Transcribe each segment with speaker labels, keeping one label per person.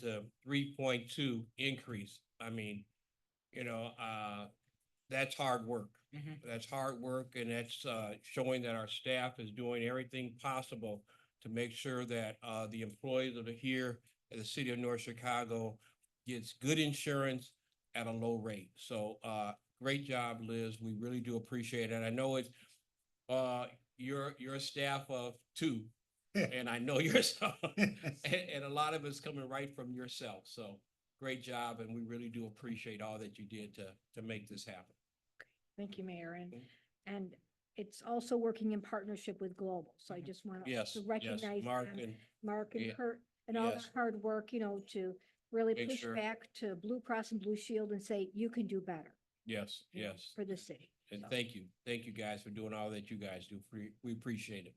Speaker 1: to three point two increase, I mean, you know, uh, that's hard work.
Speaker 2: Mhm.
Speaker 1: That's hard work and that's, uh, showing that our staff is doing everything possible to make sure that, uh, the employees that are here at the city of North Chicago gets good insurance at a low rate. So, uh, great job, Liz. We really do appreciate it. I know it's, uh, you're, you're a staff of two, and I know yourself. And, and a lot of it's coming right from yourself. So great job. And we really do appreciate all that you did to, to make this happen.
Speaker 3: Thank you, Mayor, and,
Speaker 1: Mhm.
Speaker 3: and it's also working in partnership with Global, so I
Speaker 2: Mhm.
Speaker 3: just want
Speaker 1: Mm-hmm. Yes,
Speaker 3: to
Speaker 1: yes,
Speaker 3: recognize
Speaker 1: Mark
Speaker 3: them,
Speaker 1: and,
Speaker 3: Mark and
Speaker 1: yeah,
Speaker 3: Kurt, and all the
Speaker 1: yes.
Speaker 3: hard work, you know, to really
Speaker 1: Make
Speaker 3: push
Speaker 1: sure.
Speaker 3: back to Blue Cross and Blue Shield and say, you can do better.
Speaker 1: yes,
Speaker 3: you know,
Speaker 1: yes.
Speaker 3: For the city.
Speaker 1: And
Speaker 3: So,
Speaker 1: thank you. Thank you guys for doing all that you guys do. We, we appreciate it.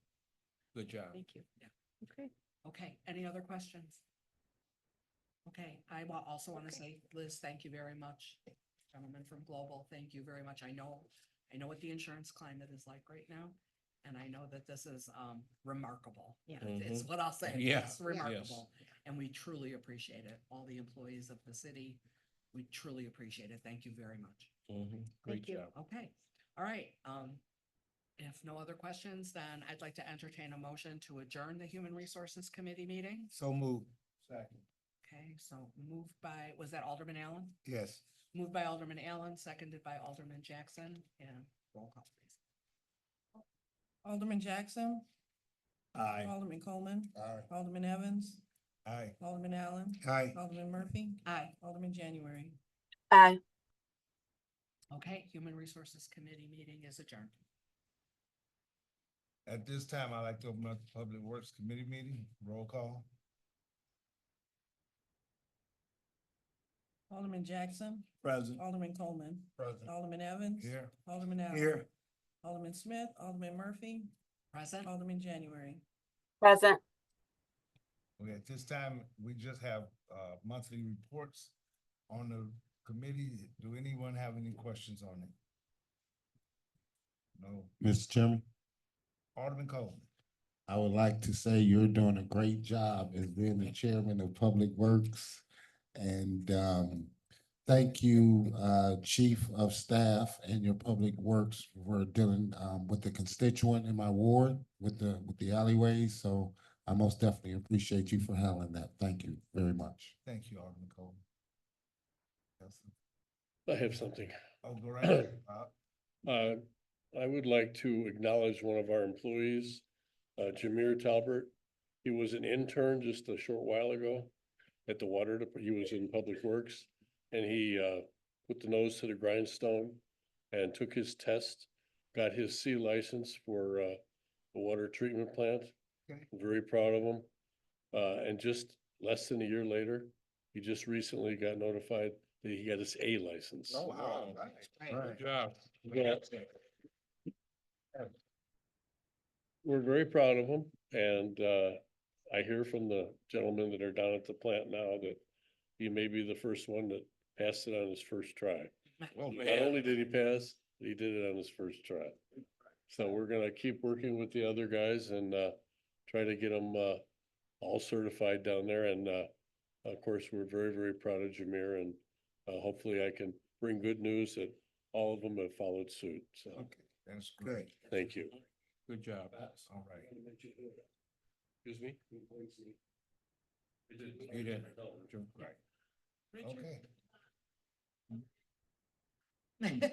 Speaker 1: Good job.
Speaker 3: Thank you.
Speaker 2: Yeah.
Speaker 3: Okay,
Speaker 2: Okay, any other questions? Okay, I wa- also want to say, Liz, thank you very much. Gentlemen from Global, thank you very much. I know, I know what the insurance climate is like right now. And I know that this is um remarkable.
Speaker 3: Yeah.
Speaker 2: It's what I'll say.
Speaker 1: Mm-hmm. Yeah,
Speaker 2: It's
Speaker 1: yes.
Speaker 2: remarkable. And we truly appreciate it. All the employees of the city, we truly appreciate it. Thank you very much.
Speaker 1: Mhm. Great
Speaker 3: Thank you.
Speaker 1: job.
Speaker 2: Okay, all right. Um, if no other questions, then I'd like to entertain a motion to adjourn the Human Resources Committee meeting.
Speaker 4: So moved. Second.
Speaker 2: Okay, so moved by, was that Alderman Allen?
Speaker 4: Yes.
Speaker 2: Moved by Alderman Allen, seconded by Alderman Jackson, and roll call please.
Speaker 5: Alderman Jackson,
Speaker 4: Aye.
Speaker 5: Alderman Coleman,
Speaker 4: Aye.
Speaker 5: Alderman Evans,
Speaker 4: Aye.
Speaker 5: Alderman Allen,
Speaker 4: Aye.
Speaker 5: Alderman Murphy,
Speaker 2: Aye,
Speaker 5: Alderman January.
Speaker 6: Bye.
Speaker 2: okay, Human Resources Committee meeting is adjourned.
Speaker 4: At this time, I'd like to open up the Public Works Committee meeting. Roll call.
Speaker 5: Alderman Jackson,
Speaker 4: Present.
Speaker 5: Alderman Coleman,
Speaker 4: Present.
Speaker 5: Alderman Evans,
Speaker 4: Here.
Speaker 5: Alderman Allen.
Speaker 4: Here.
Speaker 5: Alderman Smith, Alderman Murphy,
Speaker 2: Present?
Speaker 5: Alderman January.
Speaker 6: Present.
Speaker 4: Okay, at this time, we just have, uh, monthly reports on the committee. Do anyone have any questions on it? No.
Speaker 7: Mr. Chairman,
Speaker 4: Alderman Coleman.
Speaker 7: I would like to say you're doing a great job as being the chairman of Public Works. And um, thank you, uh, Chief of Staff and your Public Works for dealing um, with the constituent in my ward with the, with the alleyways. So I most definitely appreciate you for handling that. Thank you very much.
Speaker 4: Thank you, Alderman Coleman. Yes.
Speaker 8: I have something.
Speaker 4: Oh, go right ahead, Bob.
Speaker 8: Uh, I would like to acknowledge one of our employees, uh, Jameer Talbert. He was an intern just a short while ago at the water, dep- he was in Public Works. And he, uh, put the nose to the grindstone and took his test, got his C license for, uh, the water treatment plant.
Speaker 4: Okay.
Speaker 8: Very proud of him. Uh, and just less than a year later, he just recently got notified that he got his A license.
Speaker 1: wow.
Speaker 4: Right.
Speaker 1: Good job.
Speaker 8: Yeah. We're very proud of him and uh, I hear from the gentlemen that are down at the plant now that he may be the first one that passed it on his first try.
Speaker 1: Oh,
Speaker 8: Not only
Speaker 1: man.
Speaker 8: did he pass, he did it on his first try. So we're gonna keep working with the other guys and uh, try to get them uh, all certified down there. And uh, of course, we're very, very proud of Jameer and uh, hopefully I can bring good news that all of them have followed suit. So,
Speaker 4: Okay, that's great.
Speaker 8: thank you.
Speaker 1: Good job.
Speaker 4: All right.
Speaker 8: Excuse me?
Speaker 1: You did. Right.
Speaker 4: Okay.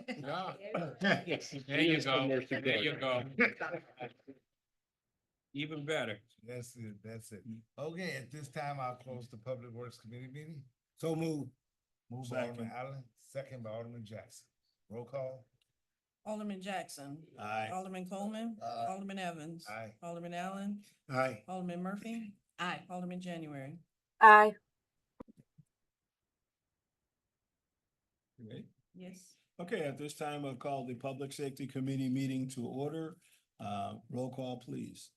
Speaker 1: Yeah.
Speaker 4: Yes.
Speaker 1: There you
Speaker 8: Yes,
Speaker 1: go.
Speaker 8: somewhere to
Speaker 1: There
Speaker 8: go.
Speaker 1: you go. Even better.
Speaker 4: That's it, that's it. Okay, at this time, I'll close the Public Works Committee meeting. So move. Move by Alderman Allen, second by Alderman Jackson. Roll call.
Speaker 5: Alderman Jackson. Aye. Alderman Coleman,
Speaker 4: Aye.
Speaker 5: Alderman Evans.
Speaker 4: Aye.
Speaker 5: Alderman Allen,
Speaker 4: Aye.
Speaker 5: Alderman Murphy,
Speaker 2: Aye.
Speaker 5: Alderman January.
Speaker 6: Bye.
Speaker 5: Yes.
Speaker 9: Okay, at this time, I'll call the Public Safety Committee meeting to order. Uh, roll call, please.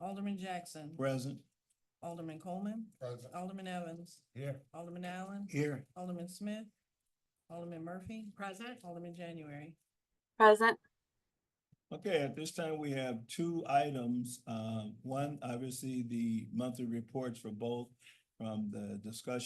Speaker 5: Alderman Jackson,
Speaker 9: Present.
Speaker 5: Alderman Coleman,
Speaker 4: Present.
Speaker 5: Alderman Evans,
Speaker 4: Here.
Speaker 5: Alderman Allen,
Speaker 9: Here.
Speaker 5: Alderman Smith, Alderman Murphy,
Speaker 2: Present?
Speaker 5: Alderman January.
Speaker 6: Present.
Speaker 9: Okay, at this time, we have two items. Uh, Um, one, obviously, the monthly reports for both from the discussion